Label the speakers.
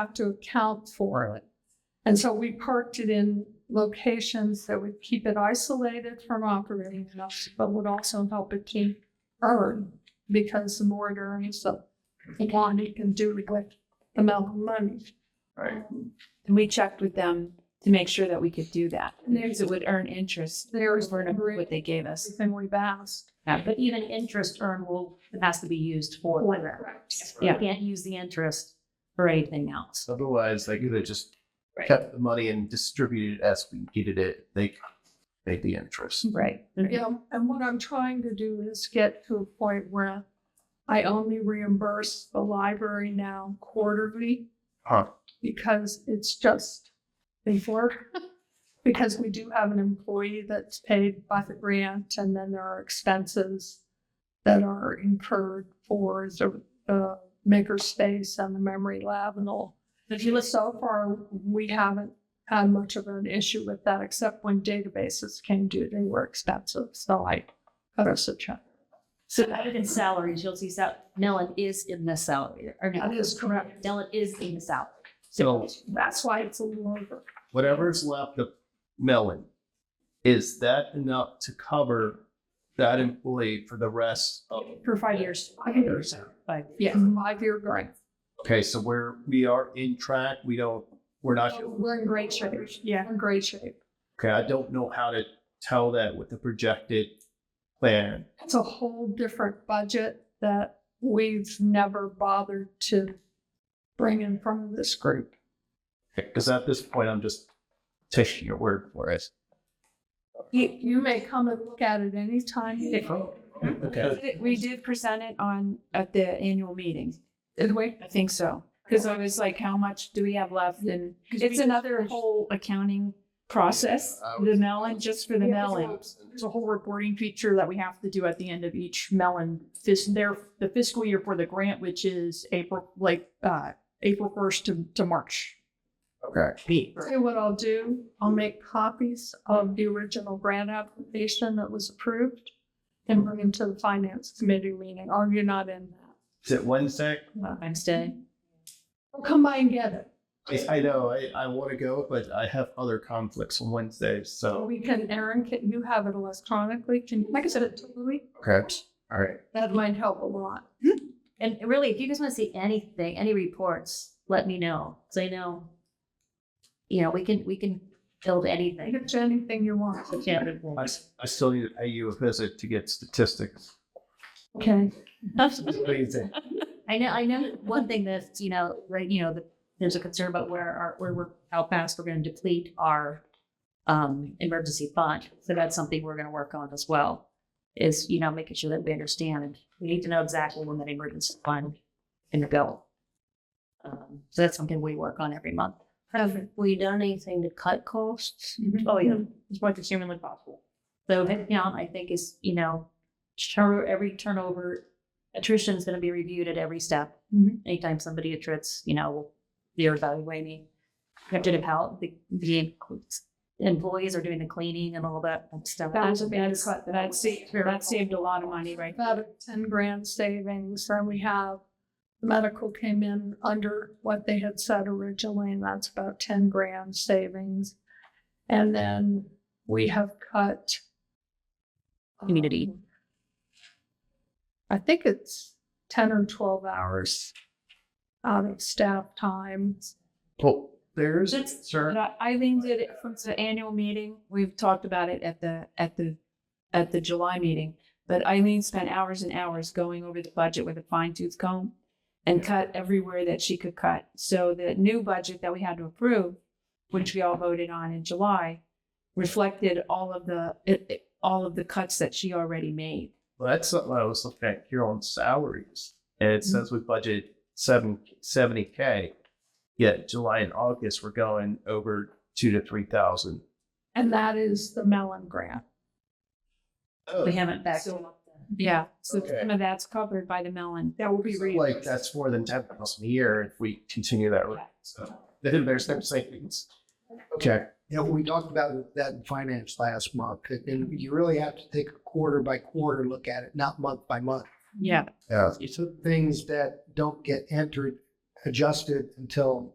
Speaker 1: have to account for it. And so we parked it in locations that would keep it isolated from operating enough, but would also help it to earn because the more it earns, the more it can do with the amount of money.
Speaker 2: Right.
Speaker 3: And we checked with them to make sure that we could do that.
Speaker 1: And
Speaker 3: Because it would earn interest
Speaker 1: There's
Speaker 3: over and above what they gave us.
Speaker 1: everything we've asked.
Speaker 4: Yeah, but even interest earned will, it has to be used for. that.
Speaker 1: Correct.
Speaker 4: You can't use the interest for anything else.
Speaker 2: Otherwise, they could have just
Speaker 4: Right.
Speaker 2: kept the money and distributed it as we needed it. They made the interest.
Speaker 4: Right.
Speaker 1: Yeah, and what I'm trying to do is get to a point where I only reimburse the library now quarterly
Speaker 2: Huh.
Speaker 1: because it's just before. Because we do have an employee that's paid by the grant and then there are expenses that are incurred for the, the makerspace and the memory lab and all.
Speaker 4: If you listen,
Speaker 1: So far, we haven't had much of an issue with that, except when databases came due, they were expensive, so I cut us a check.
Speaker 4: so other than salaries, you'll see sal, Nellen is in the salary, or no,
Speaker 1: That is correct.
Speaker 4: Nellen is in the salary.
Speaker 2: So
Speaker 1: That's why it's a little over.
Speaker 2: whatever's left of Melon, is that enough to cover that employee for the rest of?
Speaker 1: For five years. Five years.
Speaker 4: Five.
Speaker 1: Yeah, five-year grant.
Speaker 2: Okay, so we're we are in track. We don't. We're not.
Speaker 1: We're in great shape. Yeah, in great shape.
Speaker 2: Okay, I don't know how to tell that with the projected plan.
Speaker 1: It's a whole different budget that we've never bothered to bring in front of this group.
Speaker 2: Because at this point, I'm just taking your word for it.
Speaker 1: You, you may come and look at it anytime. you-
Speaker 2: Okay.
Speaker 3: We did present it on, at the annual meeting.
Speaker 1: Did we?
Speaker 3: I think so. Because I was like, how much do we have left? And it's another whole accounting process,
Speaker 2: I
Speaker 3: the melon, just for the melon.
Speaker 5: There's a whole reporting feature that we have to do at the end of each melon fis- their the fiscal year for the grant, which is April like uh April first to, to March.
Speaker 2: Okay.
Speaker 1: Tell you what I'll do, I'll make copies of the original grant application that was approved and bring them to the finance committee meeting, or you're not in that.
Speaker 2: Is it Wednesday?
Speaker 4: Wednesday.
Speaker 1: Well, come by and get it.
Speaker 2: I, I know I, I want to go, but I have other conflicts on Wednesday. So
Speaker 1: We can, Erin, can you have it electronically? Can, like I said, it to Louis,
Speaker 2: okay, all right.
Speaker 1: that might help a lot.
Speaker 4: And really, if you guys want to see anything, any reports, let me know. So I know, you know, we can, we can build
Speaker 1: You
Speaker 4: anything.
Speaker 1: can do anything you want.
Speaker 4: Yeah.
Speaker 2: I, s- I still need to pay you a visit to get statistics.
Speaker 1: Okay.
Speaker 2: Amazing.
Speaker 4: I know, I know one thing that's, you know, right, you know, that there's a concern about where our, where we're, how fast we're gonna deplete our um, emergency fund. So that's something we're gonna work on as well, is, you know, making sure that we understand. We need to know exactly when that emergency fund can go. Um, so that's something we work on every month.
Speaker 1: Have
Speaker 4: we done anything to cut costs?
Speaker 1: Mhm.
Speaker 4: Oh, yeah.
Speaker 3: Mm-hmm.
Speaker 5: As much as humanly possible.
Speaker 4: So headcount, I think, is, you know, turn, every turnover, attrition is gonna be reviewed at every step.
Speaker 3: Mm-hmm.
Speaker 1: Mhm.
Speaker 4: Anytime somebody attrits, you know, they're evaluating. We have to know how the, the employees are doing the cleaning and all that stuff.
Speaker 1: That's a bad
Speaker 3: That's-
Speaker 1: cut.
Speaker 3: That saved, that saved a lot of money, right?
Speaker 1: About a ten grand savings, and we have, medical came in under what they had said originally, and that's about ten grand savings. And then we have cut.
Speaker 4: Community.
Speaker 1: um, I think it's ten or twelve hours out of staff time.
Speaker 2: Well, there's
Speaker 3: That's-
Speaker 2: sir.
Speaker 3: But I- Eileen did it from the annual meeting. We've talked about it at the, at the, at the July meeting. But Eileen spent hours and hours going over the budget with a fine tooth comb and cut everywhere that she could cut. So the new budget that we had to approve, which we all voted on in July, reflected all of the, it- it- all of the cuts that she already made.
Speaker 2: Well, that's something I was looking at here on salaries. And it says we budget seven seventy K. Yet July and August, we're going over two to three thousand.
Speaker 1: And that is the Mellon grant.
Speaker 2: Oh,
Speaker 4: We haven't backed.
Speaker 3: Yeah, so
Speaker 2: Okay.
Speaker 3: some of that's covered by the melon.
Speaker 1: That will be
Speaker 2: so, like that's more than ten thousand a year if we continue that rate. So then there's no savings. Okay.
Speaker 6: Yeah, we talked about that in finance last month, and- and you really have to take a quarter by quarter look at it, not month by month.
Speaker 3: Yeah.
Speaker 2: Yeah.
Speaker 6: It's the things that don't get entered, adjusted until